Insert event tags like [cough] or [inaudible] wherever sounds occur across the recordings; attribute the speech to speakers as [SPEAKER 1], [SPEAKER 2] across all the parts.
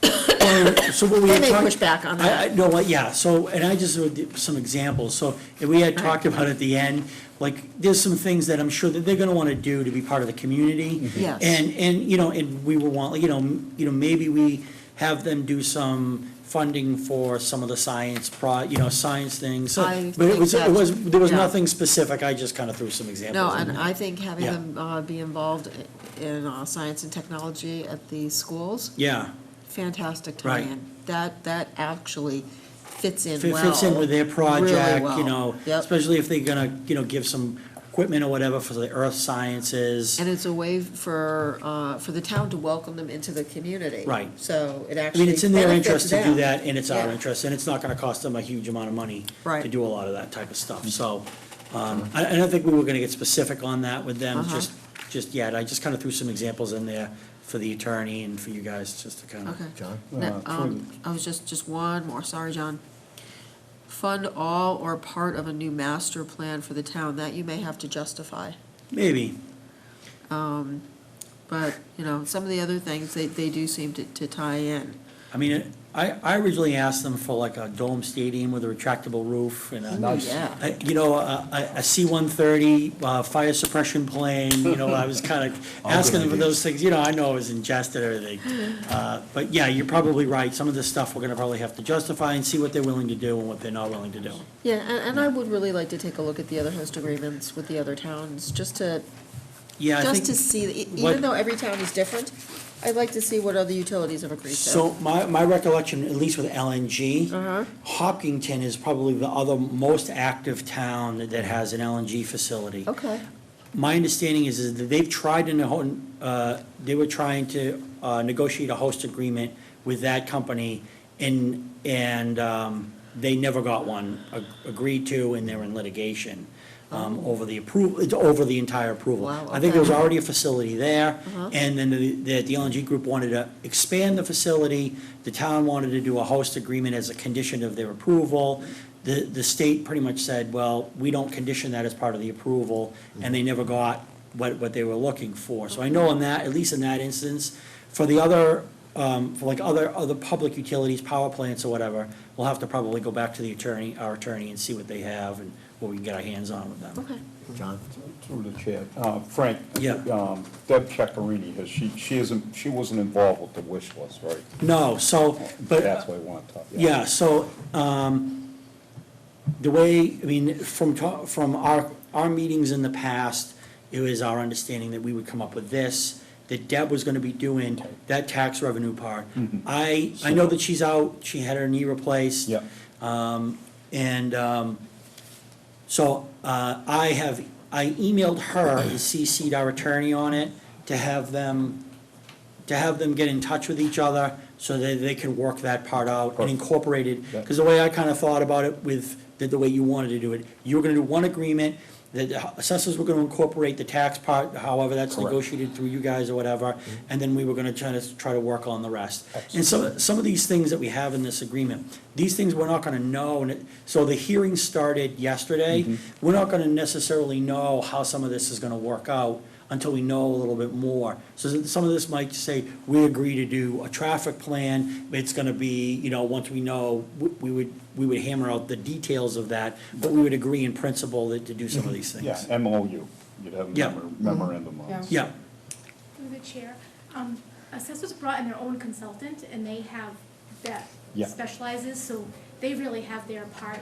[SPEAKER 1] [coughs] so what we
[SPEAKER 2] They
[SPEAKER 1] had
[SPEAKER 2] may
[SPEAKER 1] talked-
[SPEAKER 2] push back on
[SPEAKER 1] I-
[SPEAKER 2] that.
[SPEAKER 1] I- No, what- yeah, so, and I just, would- some examples, so, and we had talked about at the end, like, there's some things that I'm sure that they're gonna wanna do to be part of the community.
[SPEAKER 2] Yes.
[SPEAKER 1] And, and, you know, and we will want, you know, m- you know, maybe we have them do some funding for some of the science pro, you know, science things. So-
[SPEAKER 2] I
[SPEAKER 1] But it
[SPEAKER 2] think
[SPEAKER 1] was, it
[SPEAKER 2] that's-
[SPEAKER 1] was, there was
[SPEAKER 2] yeah.
[SPEAKER 1] nothing specific, I just kinda threw some examples.
[SPEAKER 2] No,
[SPEAKER 1] in
[SPEAKER 2] and
[SPEAKER 1] there.
[SPEAKER 2] I think having
[SPEAKER 1] Yeah.
[SPEAKER 2] them uh, be involved i- in uh, science and technology at the schools,
[SPEAKER 1] Yeah,
[SPEAKER 2] fantastic
[SPEAKER 1] Right.
[SPEAKER 2] tie-in. That, that actually fits in
[SPEAKER 1] Fit-
[SPEAKER 2] well.
[SPEAKER 1] fits in with their
[SPEAKER 2] really
[SPEAKER 1] project,
[SPEAKER 2] well.
[SPEAKER 1] you know,
[SPEAKER 2] Yep,
[SPEAKER 1] especially if they're gonna, you know, give some equipment or whatever for the earth sciences.
[SPEAKER 2] and it's a way for, uh, for the town to welcome them into the community.
[SPEAKER 1] Right.
[SPEAKER 2] So it
[SPEAKER 1] I
[SPEAKER 2] actually
[SPEAKER 1] mean, it's in their
[SPEAKER 2] benefits
[SPEAKER 1] interest to do
[SPEAKER 2] them.
[SPEAKER 1] that, and it's our
[SPEAKER 2] Yeah.
[SPEAKER 1] interest, and it's not gonna cost them a huge amount of money to
[SPEAKER 2] Right.
[SPEAKER 1] do a lot of that type of stuff, so. Um, I, I don't think we were gonna get specific on that with them,
[SPEAKER 2] Uh-huh.
[SPEAKER 1] just, just yet, I just kinda threw some examples in there for the attorney and for you guys, just to kinda.
[SPEAKER 2] Okay.
[SPEAKER 3] John?
[SPEAKER 2] No, um, I was just, just one more, sorry, John. Fund all or part of a new master plan for the town, that you may have to justify.
[SPEAKER 1] Maybe,
[SPEAKER 2] But, you know, some of the other things, they, they do seem to, to tie in.
[SPEAKER 1] I mean, I, I originally asked them for like a dome stadium with a retractable roof and a.
[SPEAKER 3] Nice.
[SPEAKER 2] Oh, Yeah.
[SPEAKER 1] I- You know, a- a, a C-130, uh, fire suppression plane, you know, I was
[SPEAKER 3] [laughs]
[SPEAKER 1] kind of
[SPEAKER 3] good
[SPEAKER 1] asking them for those
[SPEAKER 3] ideas.
[SPEAKER 1] things, you know, I know it was ingested and everything. Uh, But yeah, you're probably right, some of this stuff we're gonna probably have to justify and see what they're willing to do and what they're not willing to do.
[SPEAKER 2] Yeah, and, and I would really like to take a look at the other host agreements with the other towns, just to,
[SPEAKER 1] Yeah, I
[SPEAKER 2] just
[SPEAKER 1] think.
[SPEAKER 2] to see, e-
[SPEAKER 1] what-
[SPEAKER 2] even though every town is different, I'd like to see what other utilities have agreed to.
[SPEAKER 1] So my, my recollection, at least with LNG,
[SPEAKER 2] Uh-huh.
[SPEAKER 1] Hopkinton is probably the other most active town that- that has an LNG facility.
[SPEAKER 2] Okay,
[SPEAKER 1] My understanding is, is that they've tried to, neho- uh, they were trying to uh, negotiate a host agreement with that company, and, and um, they never got one ag- agreed to, and they're in litigation um, over the approval, over the entire approval.
[SPEAKER 2] Wow,
[SPEAKER 1] I think there was
[SPEAKER 2] okay.
[SPEAKER 1] already a facility there, and then the, the the LNG group wanted to expand the facility. The town wanted to do a host agreement as a condition of their approval. The, the state pretty much said, well, we don't condition that as part of the approval, and they never got what, what they were looking for. So I know in that, at least in that instance, for the other, um, for like other, other public utilities, power plants or whatever, we'll have to probably go back to the attorney, our attorney, and see what they have and what we can get our hands on with them.
[SPEAKER 2] okay.
[SPEAKER 3] John?
[SPEAKER 4] Through the chair, Uh, Frank.
[SPEAKER 1] Yeah.
[SPEAKER 4] um, Deb Checarini, has she, she isn't, she wasn't involved with the wish list, right?
[SPEAKER 1] No, so, but.
[SPEAKER 4] That's why I want to talk.
[SPEAKER 1] Yeah, so, um, the way, I mean, from, ta- from our, our meetings in the past, it was our understanding that we would come up with this, that Deb was gonna be doing that tax revenue part. I, I know that she's out, she had her knee replaced.
[SPEAKER 4] Yeah,
[SPEAKER 1] And um, so uh, I have, I emailed her and CC'd our attorney on it to have them, to have them get in touch with each other so that they can work that part out and
[SPEAKER 4] Perfect.
[SPEAKER 1] incorporate it.
[SPEAKER 4] Yeah.
[SPEAKER 1] Because the way I kind of thought about it with, the- the way you wanted to do it, you were going to do one agreement, that the assessors were going to incorporate the tax part, however that's
[SPEAKER 4] Correct.
[SPEAKER 1] negotiated through you guys or whatever, and then we were going to try to, try to work on the rest. And so, some of these things that we have in this agreement, these things we're not gonna know, and it, so the hearing started yesterday. We're not gonna necessarily know how some of this is gonna work out until we know a little bit more. So that some of this might say, we agree to do a traffic plan, it's gonna be, you know, once we know, we- we would, we would hammer out the details of that, but we would agree in principle that to do some of these
[SPEAKER 4] yeah,
[SPEAKER 1] things.
[SPEAKER 4] MOU, you'd have a
[SPEAKER 1] Yeah.
[SPEAKER 4] memor- memorandum on. it.
[SPEAKER 1] Yeah,
[SPEAKER 5] Through the chair, um, assessors brought in their own consultant, and they have that
[SPEAKER 4] Yeah.
[SPEAKER 5] specializes, so they really have their part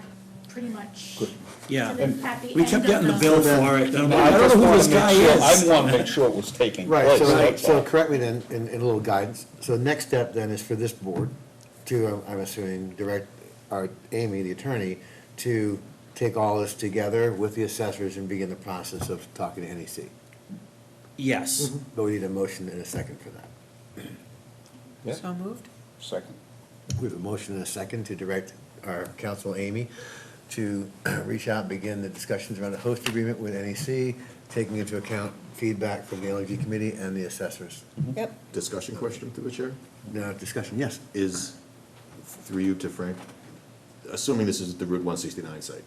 [SPEAKER 5] pretty much.
[SPEAKER 4] Good.
[SPEAKER 1] Yeah.
[SPEAKER 5] to the- at the
[SPEAKER 1] we kept
[SPEAKER 5] end of
[SPEAKER 1] getting the bill for it, and I'm like, I don't know who this guy
[SPEAKER 4] I
[SPEAKER 1] is.
[SPEAKER 4] want to make sure it was taking
[SPEAKER 3] Right,
[SPEAKER 4] place.
[SPEAKER 3] so,
[SPEAKER 4] that's
[SPEAKER 3] so
[SPEAKER 4] all.
[SPEAKER 3] correct me then, in, in a little guidance. So the next step then is for this board to, um, I'm assuming, direct our Amy, the attorney, to take all this together with the assessors and begin the process of talking to NEC.
[SPEAKER 1] Yes,
[SPEAKER 3] But we need a motion and a second for that.
[SPEAKER 4] Yeah,
[SPEAKER 2] So moved?
[SPEAKER 4] Second.
[SPEAKER 3] We have a motion and a second to direct our counsel, Amy, to [clears throat] reach out, and begin the discussions around a host agreement with NEC, taking into account feedback from the LG committee and the assessors.
[SPEAKER 2] Yep.
[SPEAKER 6] Discussion question through the chair
[SPEAKER 3] Now, discussion, yes.
[SPEAKER 6] is, through you to Frank, assuming this is the Route one sixty-nine site,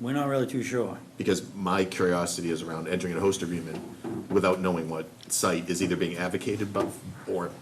[SPEAKER 1] we're not really too sure.
[SPEAKER 6] because my curiosity is around entering a host agreement without knowing what site is either being advocated by, or